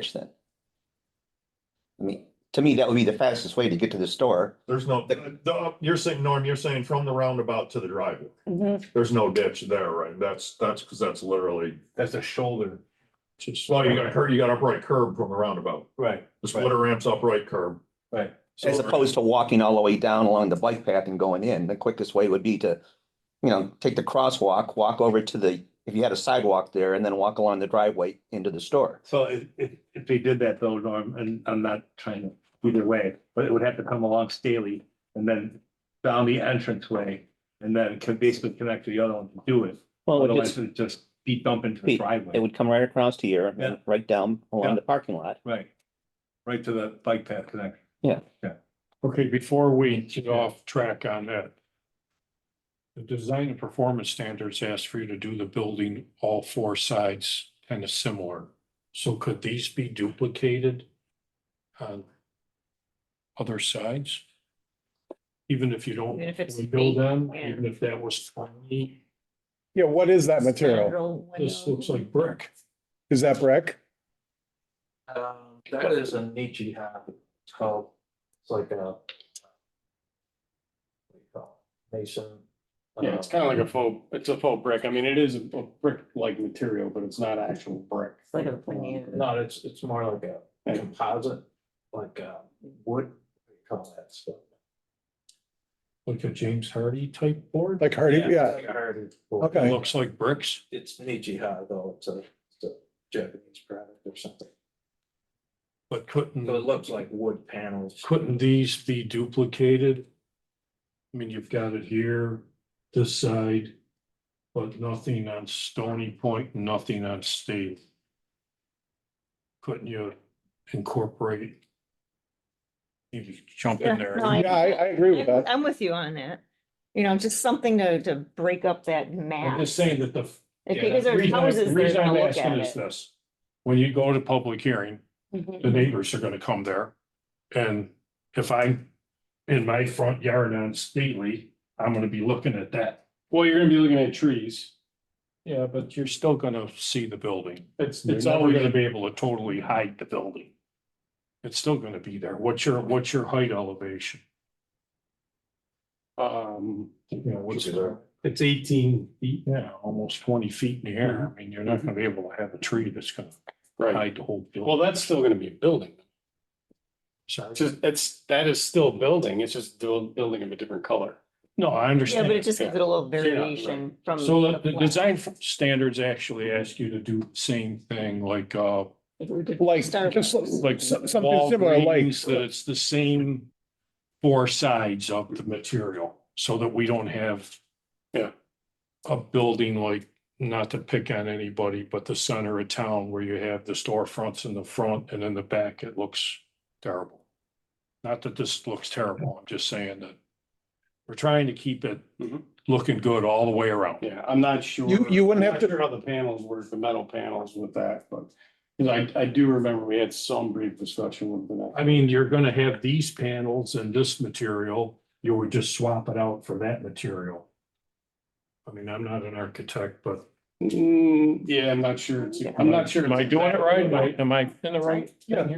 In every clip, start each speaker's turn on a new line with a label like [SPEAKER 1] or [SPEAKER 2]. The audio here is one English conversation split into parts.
[SPEAKER 1] fish then. I mean, to me, that would be the fastest way to get to the store.
[SPEAKER 2] There's no,
[SPEAKER 1] The-
[SPEAKER 2] the, you're saying, Norm, you're saying from the roundabout to the driveway.
[SPEAKER 3] Mhm.
[SPEAKER 2] There's no ditch there, right? That's, that's, cause that's literally,
[SPEAKER 4] That's a shoulder.
[SPEAKER 2] well, you got, cur- you got upright curb from the roundabout.
[SPEAKER 4] Right,
[SPEAKER 2] The splitter ramps upright curb.
[SPEAKER 4] right.
[SPEAKER 2] So-
[SPEAKER 1] As opposed to walking all the way down along the bike path and going in, the quickest way would be to, you know, take the crosswalk, walk over to the, if you had a sidewalk there and then walk along the driveway into the store.
[SPEAKER 4] So if, if, if they did that though, Norm, and I'm not trying to either way, but it would have to come along Staley and then down the entrance way and then can basically connect to the other one to do it.
[SPEAKER 1] Well,
[SPEAKER 4] Otherwise it'd just be dumped into the
[SPEAKER 1] It- It
[SPEAKER 4] driveway.
[SPEAKER 1] would come right across to here,
[SPEAKER 4] Yeah.
[SPEAKER 1] right down
[SPEAKER 4] Yeah.
[SPEAKER 1] along the parking lot.
[SPEAKER 4] Right. Right to the bike path connection.
[SPEAKER 5] Okay, before we get off track on that. The design and performance standards asked for you to do the building all four sides kind of similar. So could these be duplicated? On. Other sides? Even if you don't.
[SPEAKER 3] Even if it's
[SPEAKER 5] Build them,
[SPEAKER 3] yeah.
[SPEAKER 5] even if that was twenty,
[SPEAKER 6] Yeah, what is that material?
[SPEAKER 5] this looks like brick.
[SPEAKER 6] Is that brick?
[SPEAKER 7] Um, that is a Nietzsche hat. It's called, it's like a. what do you call it? Mason.
[SPEAKER 8] Yeah,
[SPEAKER 7] um,
[SPEAKER 8] it's kind of like a faux, it's a faux brick. I mean, it is a a brick-like material, but it's not actual brick.
[SPEAKER 3] Like a veneer.
[SPEAKER 7] No, it's, it's more like a composite, like uh wood, what do you call that stuff?
[SPEAKER 5] Like a James Hardy type board.
[SPEAKER 6] Like Hardy,
[SPEAKER 7] it's
[SPEAKER 6] yeah,
[SPEAKER 7] like a heritage board.
[SPEAKER 6] Okay.
[SPEAKER 5] It Looks like bricks.
[SPEAKER 7] It's Nietzsche hat though, it's a, it's a Japanese product or something.
[SPEAKER 5] But couldn't.
[SPEAKER 7] So it looks like wood panels.
[SPEAKER 5] Couldn't these be duplicated? I mean, you've got it here, this side, but nothing on Stony Point, nothing on State. Couldn't you incorporate? You just jump
[SPEAKER 3] Yeah,
[SPEAKER 5] in there.
[SPEAKER 3] no, I-
[SPEAKER 6] yeah, I, I agree with that.
[SPEAKER 3] I'm with you on that. You know, just something to, to break up that
[SPEAKER 5] I'm
[SPEAKER 3] map.
[SPEAKER 5] just saying that the.
[SPEAKER 3] If-
[SPEAKER 5] yeah,
[SPEAKER 3] Because
[SPEAKER 5] the
[SPEAKER 3] there's
[SPEAKER 5] reason I-
[SPEAKER 3] houses
[SPEAKER 5] the
[SPEAKER 3] there
[SPEAKER 5] reason
[SPEAKER 3] to
[SPEAKER 5] I'm
[SPEAKER 3] look
[SPEAKER 5] asking
[SPEAKER 3] at
[SPEAKER 5] is
[SPEAKER 3] it.
[SPEAKER 5] this, when you go to public hearing,
[SPEAKER 3] Mhm.
[SPEAKER 5] the neighbors are gonna come there. And if I'm in my front yard on Stately, I'm gonna be looking at that.
[SPEAKER 8] Well, you're gonna be looking at trees.
[SPEAKER 5] Yeah, but you're still gonna see the building.
[SPEAKER 8] It's,
[SPEAKER 5] It's
[SPEAKER 8] it's
[SPEAKER 5] always
[SPEAKER 8] always,
[SPEAKER 5] gonna be able to totally hide the building. It's still gonna be there. What's your, what's your height elevation?
[SPEAKER 8] um,
[SPEAKER 5] You know, what's
[SPEAKER 2] Should be there.
[SPEAKER 5] the? It's eighteen feet now, almost twenty feet in the air. I mean, you're not gonna be able to have a tree that's gonna
[SPEAKER 8] Mm-hmm. right.
[SPEAKER 5] hide the whole
[SPEAKER 8] Well,
[SPEAKER 5] building.
[SPEAKER 8] that's still gonna be a building.
[SPEAKER 5] Sorry.
[SPEAKER 8] It's just, it's, that is still building. It's just buil- building of a different color.
[SPEAKER 5] No, I
[SPEAKER 3] Yeah,
[SPEAKER 5] understand.
[SPEAKER 3] but it just gives it a little
[SPEAKER 8] Yeah, right.
[SPEAKER 3] variation from.
[SPEAKER 5] So the, the
[SPEAKER 3] plan.
[SPEAKER 5] design f- standards actually ask you to do the same thing like, uh,
[SPEAKER 3] If we did
[SPEAKER 6] Like,
[SPEAKER 3] Starbucks.
[SPEAKER 6] just so-
[SPEAKER 5] like.
[SPEAKER 6] Some- something similar, like-
[SPEAKER 5] Walgreens, That it's the same four sides of the material so that we don't have.
[SPEAKER 8] Yeah.
[SPEAKER 5] A building like, not to pick on anybody, but the center of town where you have the storefronts in the front and in the back, it looks terrible. Not that this looks terrible, I'm just saying that we're trying to keep it
[SPEAKER 6] Mm-hmm.
[SPEAKER 8] Mhm.
[SPEAKER 5] looking good all the way around.
[SPEAKER 8] Yeah, I'm not sure.
[SPEAKER 6] You- you wouldn't
[SPEAKER 8] I'm
[SPEAKER 6] have
[SPEAKER 8] not
[SPEAKER 6] to-
[SPEAKER 8] sure How the panels work, the metal panels with that, but, you know, I, I do remember we had some brief discussion with that.
[SPEAKER 5] I mean, you're gonna have these panels and this material, you would just swap it out for that material. I mean, I'm not an architect, but.
[SPEAKER 8] Mm, yeah, I'm not sure. It's- I'm not sure.
[SPEAKER 5] Am I doing it right? Am I, am I in the right?
[SPEAKER 8] Yeah.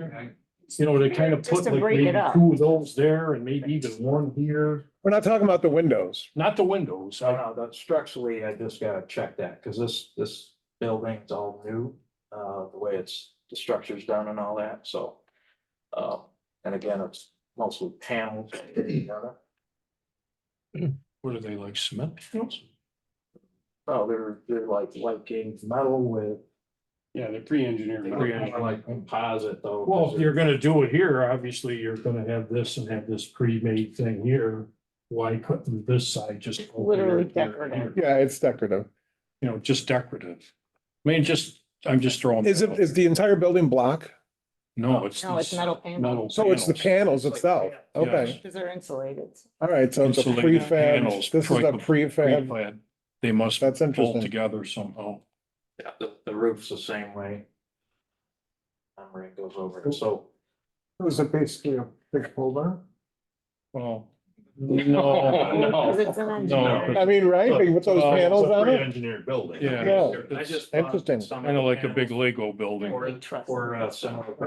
[SPEAKER 5] You know, they kind of
[SPEAKER 3] Just
[SPEAKER 5] put
[SPEAKER 3] to
[SPEAKER 5] like
[SPEAKER 3] break it
[SPEAKER 5] maybe
[SPEAKER 3] up.
[SPEAKER 5] two of those there and maybe even one here,
[SPEAKER 6] We're not talking about the windows.
[SPEAKER 5] not the windows.
[SPEAKER 7] So
[SPEAKER 5] I-
[SPEAKER 7] no, that structurally, I just gotta check that, cause this, this building's all new, uh, the way it's, the structure's done and all that, so. Uh, and again, it's mostly panels.
[SPEAKER 5] What are they like cement? panels?
[SPEAKER 7] Oh, they're, they're like light gauge metal with.
[SPEAKER 8] Yeah, they're pre-engineered.
[SPEAKER 7] Like composite though. 'cause
[SPEAKER 5] Well, if
[SPEAKER 7] they're-
[SPEAKER 5] you're gonna do it here, obviously you're gonna have this and have this pre-made thing here. Why couldn't this side just? go here,
[SPEAKER 3] Literally
[SPEAKER 5] here,
[SPEAKER 3] decorative.
[SPEAKER 5] here?
[SPEAKER 6] Yeah, it's decorative.
[SPEAKER 5] you know, just decorative. I mean, just, I'm just throwing.
[SPEAKER 6] Is it, is the entire building block?
[SPEAKER 5] No, it's.
[SPEAKER 3] No, it's metal panels,
[SPEAKER 5] Metal
[SPEAKER 6] So it's the panels
[SPEAKER 5] panels.
[SPEAKER 6] itself. Okay,
[SPEAKER 3] because they're insulated.
[SPEAKER 6] all right, so it's a
[SPEAKER 5] Insulated
[SPEAKER 6] prefab.
[SPEAKER 5] panels,
[SPEAKER 6] This is a
[SPEAKER 5] pre-
[SPEAKER 6] prefab.
[SPEAKER 5] Pre-clad. They must
[SPEAKER 6] That's
[SPEAKER 5] pull
[SPEAKER 6] interesting.
[SPEAKER 5] together somehow.
[SPEAKER 7] Yeah, The, the roof's the same way. Memory goes over, it. so.
[SPEAKER 6] Was it basically a big pull down?
[SPEAKER 5] Well, No,
[SPEAKER 3] Because
[SPEAKER 5] no,
[SPEAKER 3] it's an
[SPEAKER 5] no.
[SPEAKER 3] engineer.
[SPEAKER 4] I mean, right, Big with those
[SPEAKER 5] Uh,
[SPEAKER 4] panels on it?
[SPEAKER 2] Engineered building.
[SPEAKER 5] Yeah.
[SPEAKER 4] Yeah.
[SPEAKER 7] I just.
[SPEAKER 4] Interesting.
[SPEAKER 5] Kind of like a big Lego building.
[SPEAKER 7] Or, or uh, similar.